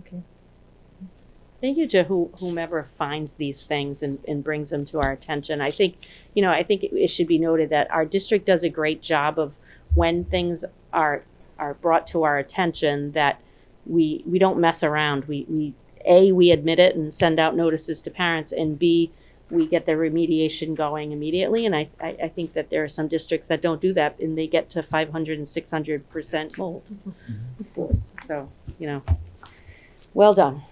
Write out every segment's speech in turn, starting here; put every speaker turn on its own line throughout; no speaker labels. Okay. Thank you to who- whomever finds these things and, and brings them to our attention. I think, you know, I think it, it should be noted that our district does a great job of when things are, are brought to our attention that we, we don't mess around. We, we, A, we admit it and send out notices to parents and B, we get the remediation going immediately. And I, I, I think that there are some districts that don't do that and they get to 500 and 600% mold scores. So, you know, well done.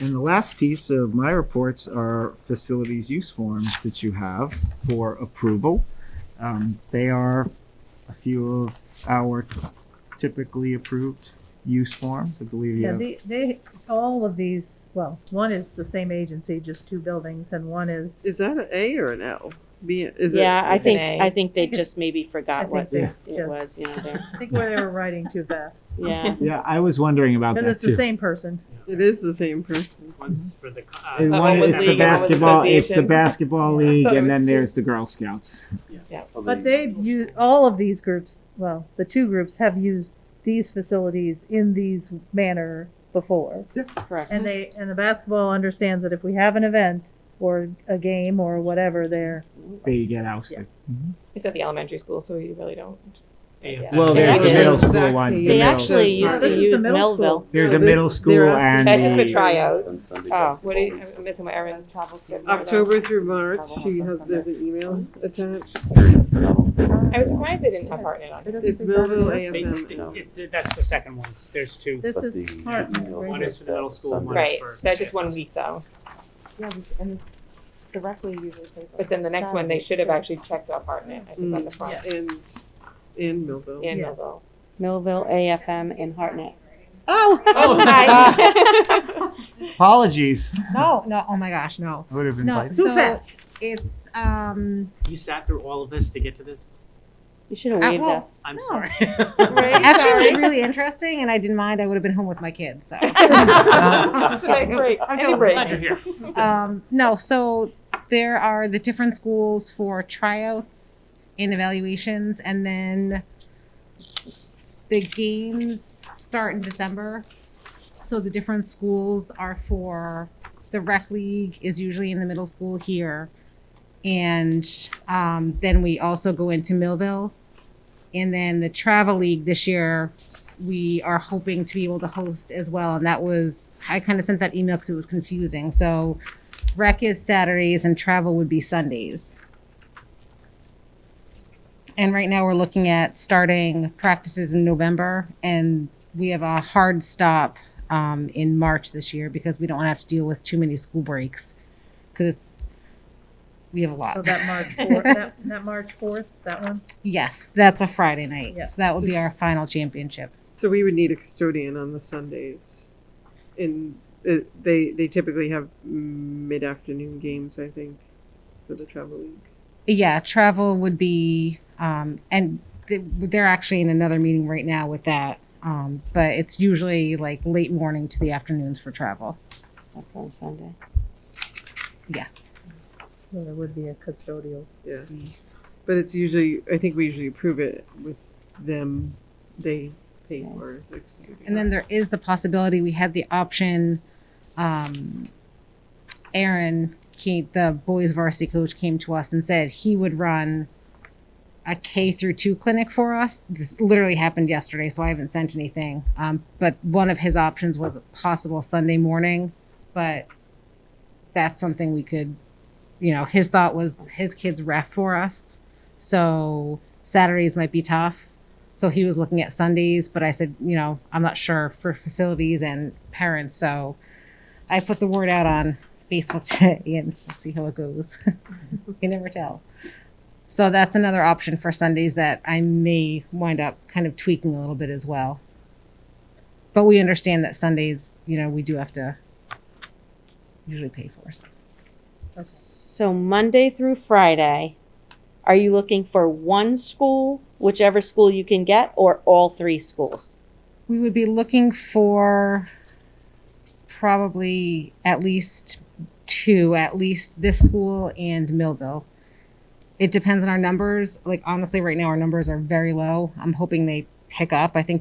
And the last piece of my reports are facilities use forms that you have for approval. Um, they are a few of our typically approved use forms. I believe you
Yeah,
have,
they, they, all of these, well, one is the same agency, just two buildings, and one is,
Is that an A or an L? B, is it?
Yeah, I
it's an
think,
A.
I think they
think it-
just maybe
I
forgot
think
what
they
Yeah.
it
just-
was, you know, there,
I think where they were writing too fast.
yeah.
yeah, I was wondering about
Because
that
it's the
too.
same person.
It is the same person.
One's for the. co-
And
uh,
one-
was
it's the
league, one was
basketball, it's the
association.
basketball league,
thought it
and then
was two.
there's the Girl Scouts.
But they've used, all of these groups, well, the two groups have used these facilities in these manner before.
Correct.
And they, and the basketball understands that if we have an event or a game or whatever, they're,
They get ousted.
It's at the elementary school, so you really don't.
AFL.
Well,
They
Oh, there's the
actually-
middle school one. the
They
They
middle-
actually
No,
used
this is
to
the
use
middle school.
Melville.
There's
No,
a middle
this- they're
school and
That's just for
a,
tryouts.
Oh,
What do you, I'm missing what Erin travels to.
October through March, she has, there's an email attached.
I was surprised they didn't have Hartnett on.
It's Millville
They-
AFM.
it's- That's the second one. There's two.
this is hard.
One is for the middle school, one is
Right,
for.
that's just one week though.
Yeah, we- and directly usually plays.
But then the next one, they should have actually checked out Hartnett. I think on
Mm.
the front
And, and Millville.
in
Yeah.
Millville.
Millville, AFM, and Hartnett.
Oh, hi.
apologies.
No, no, oh my gosh, no.
I would have
No,
invited.
Too
so
fast.
it's, um,
You sat through all of this to get to this?
You should have
Uh,
waved
well-
us.
I'm
No.
sorry.
actually it was really interesting and I didn't mind. I would have been home with my kids, so.
Just a nice break,
I'm
any
totally
break.
Glad you're here.
Um, no, so there are the different schools for tryouts and evaluations, and then the games start in December. So the different schools are for the rec league is usually in the middle school here, and um, then we also go into Millville, and then the travel league this year. We are hoping to be able to host as well, and that was I kind of sent that email because it was confusing. So rec is Saturdays and travel would be Sundays. And right now we're looking at starting practices in November and we have a hard stop um, in March this year because we don't want to have to deal with too many school breaks because it's we have a
So
lot.
Oh, that March fourth, that, that March fourth, that one?
yes, that's a Friday night.
Yeah.
So that would be our final championship.
So we would need a custodian on the Sundays. And uh, they, they typically have mid-afternoon games, I think, for the travel league.
Yeah, travel would be, um, and th- they're actually in another meeting right now with that. Um, but it's usually like late morning to the afternoons for travel.
That's on Sunday.
Yes.
Well, there would be a custodial.
Yeah. But it's usually, I think we usually approve it with them, they pay for. the custodian.
And then there is the possibility we had the option. Um, Aaron, came, the boys varsity coach, came to us and said he would run a K through two clinic for us. This literally happened yesterday, so I haven't sent anything. Um, but one of his options was a possible Sunday morning, but that's something we could, you know, his thought was his kids ref for us. So Saturdays might be tough. So he was looking at Sundays, but I said, you know, I'm not sure for facilities and parents. So I put the word out on Facebook today and we'll see how it goes. you never tell. So that's another option for Sundays that I may wind up kind of tweaking a little bit as well. But we understand that Sundays, you know, we do have to usually pay for. So.
So Monday through Friday, are you looking for one school, whichever school you can get, or all three schools?
We would be looking for probably at least two, at least this school and Millville. It depends on our numbers. Like honestly, right now our numbers are very low. I'm hoping they pick up. I think